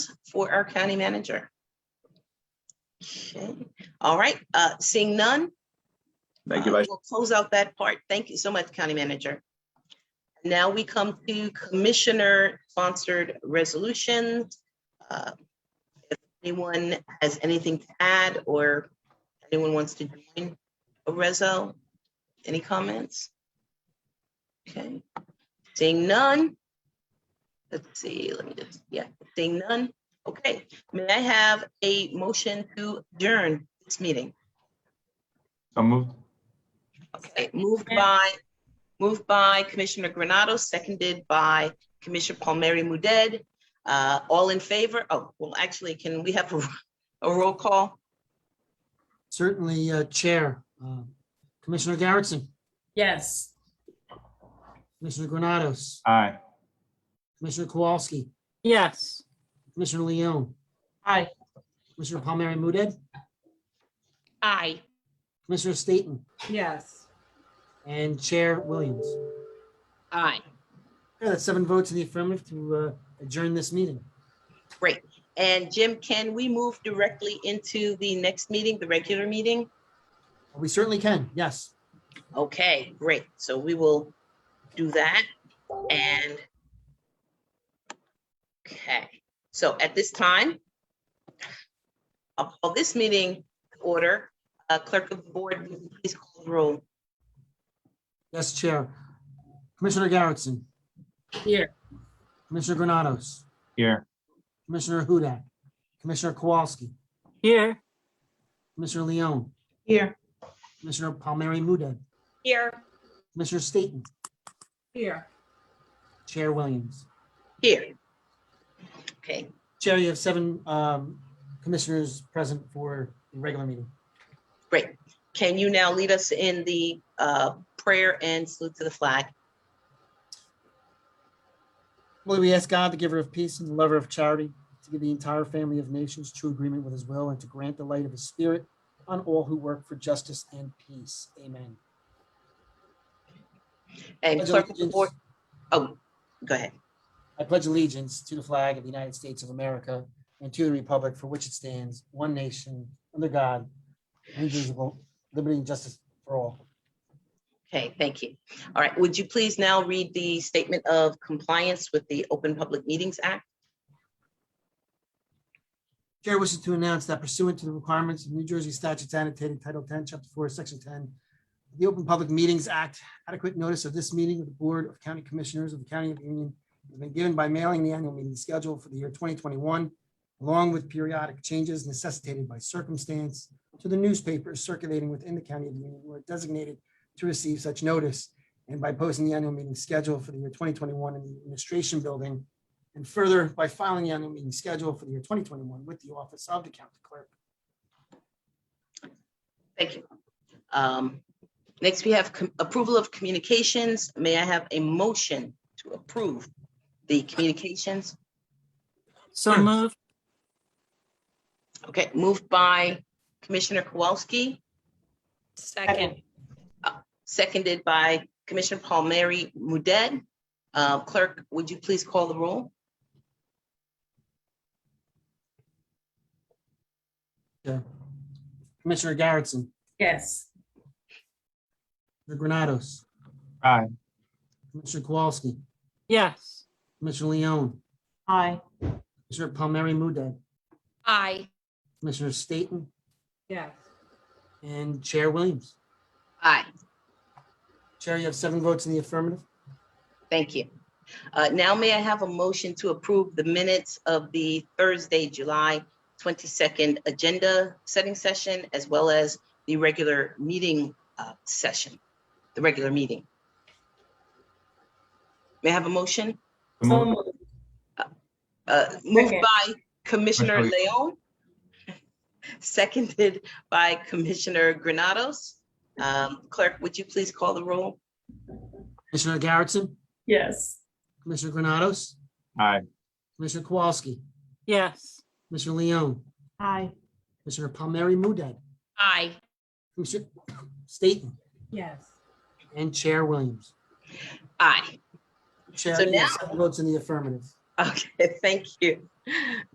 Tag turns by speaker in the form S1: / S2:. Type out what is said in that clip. S1: for our county manager? Okay, all right, uh, seeing none.
S2: Thank you,
S1: uh,
S2: Vice.
S1: We'll close out that part. Thank you so much, County Manager. Now we come to Commissioner-sponsored resolutions. Uh, If anyone has anything to add or anyone wants to join, Rezo, any comments? Okay, seeing none. Let's see, let me just, yeah, seeing none. Okay, may I have a motion to adjourn this meeting?
S2: So moved.
S1: Okay, moved by, moved by Commissioner Granado, seconded by Commissioner Palmieri Muedad. Uh, all in favor? Oh, well, actually, can we have a, a roll call?
S3: Certainly, uh, Chair. Uh, Commissioner Garrettson,
S4: Yes.
S3: Commissioner Granados,
S2: Aye.
S3: Commissioner Kowalski,
S4: Yes.
S3: Commissioner Leone,
S4: Aye.
S3: Commissioner Palmieri Muedad,
S1: Aye.
S3: Commissioner Staton,
S4: Yes.
S3: and Chair Williams.
S4: Aye.
S3: Okay, that's seven votes in the affirmative to uh, adjourn this meeting.
S1: And Jim, can we move directly into the next meeting, the regular meeting?
S3: We certainly can, yes.
S1: Okay, great. So we will do that and okay, so at this time, I'll call this meeting to order. Uh, Clerk of the Board, would you please call the roll.
S3: Yes, Chair. Commissioner Garrettson,
S4: Here.
S3: Commissioner Granados,
S2: Here.
S3: Commissioner Hudak, Commissioner Kowalski,
S4: Here.
S3: Commissioner Leone,
S1: Here.
S3: Commissioner Palmieri Muedad,
S4: Here.
S3: Commissioner Staton,
S4: Here.
S3: Chair Williams.
S1: Here. Okay,
S3: Chair, you have seven um, commissioners present for the regular meeting.
S1: great. Can you now lead us in the uh, prayer and salute to the flag?
S3: Lord, we ask God, the giver of peace and the lover of charity, to give the entire family of nations true agreement with his will and to grant the light of his spirit on all who work for justice and peace. Amen.
S1: And
S3: Pledge
S1: Clerk of the
S3: allegiance-
S1: Board, oh, go ahead.
S3: I pledge allegiance to the flag of the United States of America and to the republic for which it stands, one nation, under God, indivisible, liberty and justice for all.
S1: Okay, thank you. All right, would you please now read the statement of compliance with the Open Public Meetings Act?
S3: Chair wishes to announce that pursuant to the requirements of New Jersey statutes annotated Title 10, Chapter 4, Section 10, the Open Public Meetings Act, adequate notice of this meeting of the Board of County Commissioners of the County of Union has been given by mailing the annual meeting schedule for the year 2021, along with periodic changes necessitated by circumstance to the newspapers circulating within the County of Union who are designated to receive such notice, and by posting the annual meeting schedule for the year 2021 in the Administration Building and further, by filing the annual meeting schedule for the year 2021 with the Office of the County Clerk.
S1: Thank you. Um, Next, we have com- approval of communications. May I have a motion to approve the communications?
S4: So moved.
S1: Okay, moved by Commissioner Kowalski,
S4: Second.
S1: seconded by Commissioner Palmieri Mudet. Uh, Clerk, would you please call the roll?
S3: Commissioner Garrettson,
S4: Yes.
S3: Commissioner Granados.
S2: Aye.
S3: Commissioner Kowalski,
S4: Yes.
S3: Commissioner Leone,
S4: Aye.
S3: Commissioner Palmieri Muedad,
S5: Aye.
S3: Commissioner Staton,
S4: Yes.
S3: and Chair Williams.
S5: Aye.
S3: Chair, you have seven votes in the affirmative.
S1: Thank you. Uh, Now may I have a motion to approve the minutes of the Thursday, July 22nd agenda setting session as well as the regular meeting uh, session, the regular meeting? May I have a motion?
S2: So moved.
S1: Uh, Moved
S4: Second.
S1: by Commissioner
S2: Second.
S1: Leon, seconded by Commissioner Granados. Um, Clerk, would you please call the roll?
S3: Commissioner Garrettson,
S4: Yes.
S3: Commissioner Granados,
S2: Aye.
S3: Commissioner Kowalski,
S4: Yes.
S3: Commissioner Leone,
S4: Aye.
S3: Commissioner Palmieri Muedad,
S5: Aye.
S3: Commissioner Staton,
S4: Yes.
S3: and Chair Williams.
S1: Aye.
S3: Chair,
S1: So
S3: you have
S1: now-
S3: seven votes in the affirmative.
S1: Okay, thank you.